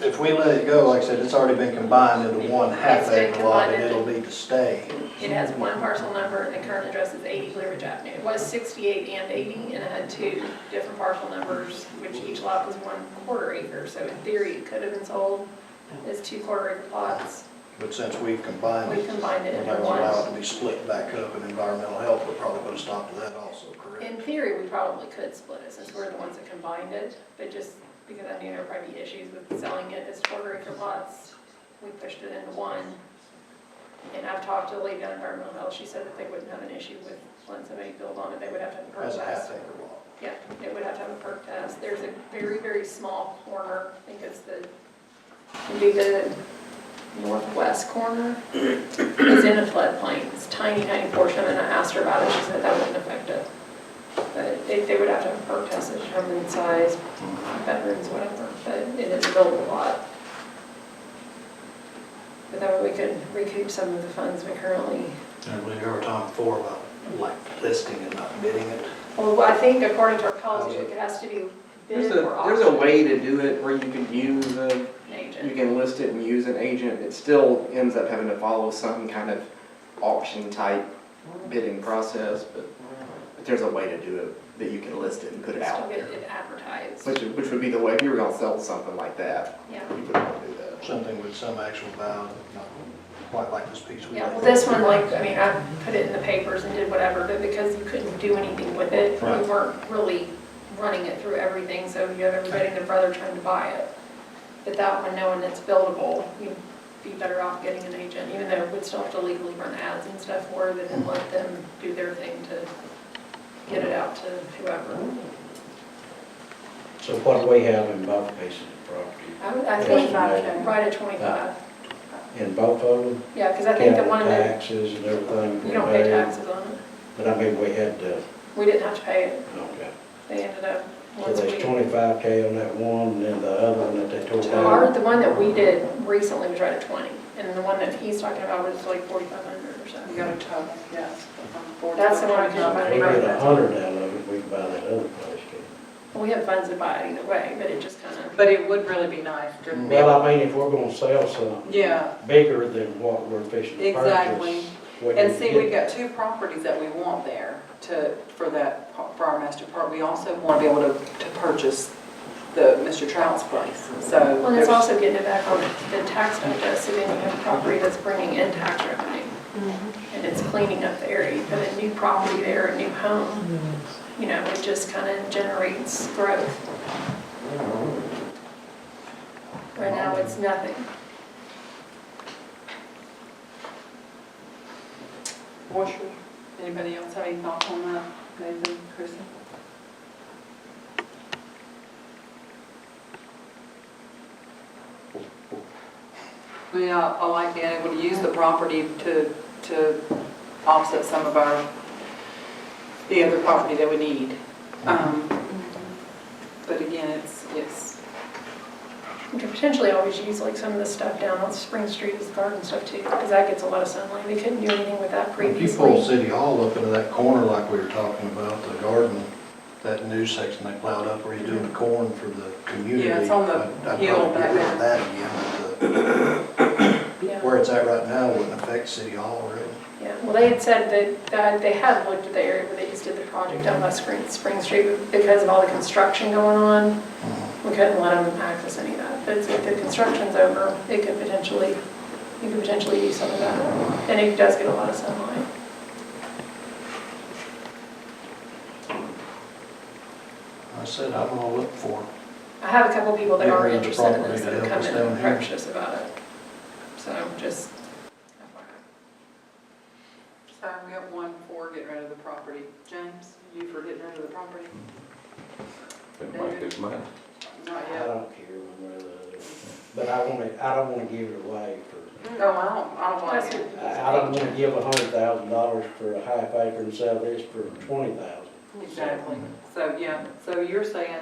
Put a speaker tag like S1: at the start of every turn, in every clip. S1: if we let it go, like I said, it's already been combined into one half
S2: It's been
S1: acre lot and
S2: combined
S1: it'll
S2: into-
S1: be to stay.
S2: It has one parcel number, and the current address is 80 Blue Ridge Avenue. It was 68 and 80, and it had two different parcel numbers, which each lot was one quarter acre. So in theory, it could have been sold as two quarter acre plots.
S1: But since we've combined
S2: We
S1: it,
S2: combined it
S1: we're
S2: into
S1: not gonna allow it
S2: one.
S1: to be split back up and environmental health, we're probably gonna stop to that also, correct?
S2: In theory, we probably could split it, since we're the ones that combined it, but just because I knew there would probably be issues with selling it as quarter acre plots, we pushed it into one. And I've talked to the lady on environmental health, she said that they wouldn't have an issue with letting somebody build on it, they would have to have a permit.
S1: As a half acre lot.
S2: Yeah, it would have to have a perk test. There's a very, very small corner, I think it's the, it'd be the northwest corner. It's in a floodplain, it's a tiny, tiny portion, and I asked her about it, she said that wouldn't affect it. But they, they would have to have a perk test to determine size, bedrooms, whatever, but it is a buildable lot. But that way we could recoup some of the funds we currently
S1: And we heard Tom before about like listing and not bidding it.
S2: Well, I think according to our policy, it has to be
S3: There's
S2: bid
S3: a,
S2: or
S3: there's a
S2: auctioned.
S3: way to do it where you can use a, you
S2: Agent.
S3: can list it and use an agent. It still ends up having to follow some kind of auction type bidding process, but, but there's a way to do it, that you can list it and put it
S2: Still
S3: out
S2: get
S3: there.
S2: it advertised,
S3: Which, which would be the way, if you were gonna sell something like that,
S2: yeah.
S3: you would wanna do that.
S1: Something with some actual value, not quite like this piece we
S2: Yeah, well,
S1: got.
S2: this one, like, I mean, I put it in the papers and did whatever, but because you couldn't do anything with it, we
S1: Right.
S2: weren't really running it through everything, so you have everybody and their brother trying to buy it. But that one, knowing it's buildable, you'd be better off getting an agent, even though we'd still have to legally run ads and stuff for it, and let them do their thing to get it out to whoever.
S4: So what we have in both pieces of property,
S2: I would- I
S4: Yeah,
S2: think,
S4: right.
S2: right at 25,
S4: in both of them,
S2: yeah, because I think the
S4: capital
S2: one that,
S4: taxes and everything.
S2: you
S4: we
S2: don't pay
S4: paid,
S2: taxes on it,
S4: But I mean, we had to,
S2: we didn't have to pay it,
S4: okay.
S2: they ended up,
S4: So
S2: once we.
S4: there's twenty-five K on that one, and then the other one that they tore
S2: Our,
S4: down.
S2: the one that we did recently was right at 20, and the one that he's talking about was like 4,500 or so.
S5: You got a total, yes. from 40
S2: That's the one I
S4: So If we get a hundred out of it, we can buy that other place, can
S2: We have funds to buy it either way, but it just kind of,
S5: But it would really be nice to
S4: we?
S5: be,
S4: Well, I mean, if we're gonna sell something
S5: yeah,
S4: bigger than what we're fixing to purchase.
S5: exactly.
S4: we
S5: And
S4: can
S5: see,
S4: get
S5: we've got two properties that we want there to, for that, par- for our master park. We also want to be able to, to purchase the Mr. Trout's place, so.
S2: well, and it's
S5: there's-
S2: also getting it back on the tax digest, so then you have property that's bringing in tax revenue.
S5: Mm-hmm.
S2: And it's cleaning up the area, you put a new property there, a new home, you know, it just kind of generates growth. Right now, it's nothing.
S5: What's your- Anybody else have any thoughts on that, Nathan, Kristen? I mean, I, I like being able to use the property to, to offset some of our, the other property that we need. Um, But again, it's, it's,
S2: You could potentially always use like some of the stuff down on Spring Street as garden stuff too, because that gets a lot of sunlight. They couldn't do anything with
S1: If
S2: that
S1: you pull
S2: previously.
S1: City Hall up into that corner like we were talking about, the garden, that new section they plowed up where you're doing the corn for the community.
S5: Yeah, it's on the
S1: I'd- I'd
S5: hill
S1: probably get rid of
S5: back
S1: That again, but the-
S2: Yeah,
S1: where it's at right now wouldn't affect City Hall really.
S2: yeah. Well, they had said that, that they had looked at the area where they just did the project down by Spring, Spring Street, but because of all the construction going on, we couldn't let them access any of that. But if the construction's over, it could potentially, you could potentially use some of that. And it does get a lot of sunlight.
S1: I said, I'm gonna look for it.
S2: I have a couple people that
S1: Yeah,
S2: are
S1: we have the
S2: interested in
S1: property
S2: this
S1: to
S2: that have
S1: help
S2: come
S1: us
S2: in
S1: down
S2: and
S1: here.
S2: approached us about it. So just,
S5: so we have one for getting rid of the property. James, you for getting rid of the property?
S6: It might be mine.
S5: Not
S4: I
S5: yet.
S4: don't care one way or the other, but I wanna, I don't wanna give it away for,
S5: No, Oh, I don't, I don't like it.
S4: I I don't wanna give a hundred thousand dollars for a half acre and sell this for twenty thousand.
S5: Exactly. So, yeah, so you're saying,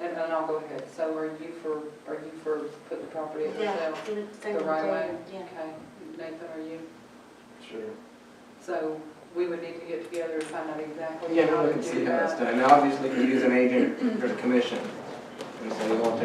S5: and and I'll go ahead, so are you for, are you for putting the property up for
S7: Yeah,
S5: sale?
S7: they
S5: The
S7: would
S5: right
S7: do,
S5: way?
S7: yeah.
S5: Okay, Nathan, are you?
S3: Sure.
S5: So we would need to get together and find out exactly
S3: Yeah,
S5: how
S3: we
S5: to
S3: can see
S5: do
S3: how it's
S5: that.
S3: done. Now, obviously, if you use an agent, there's a commission. And so you'll have to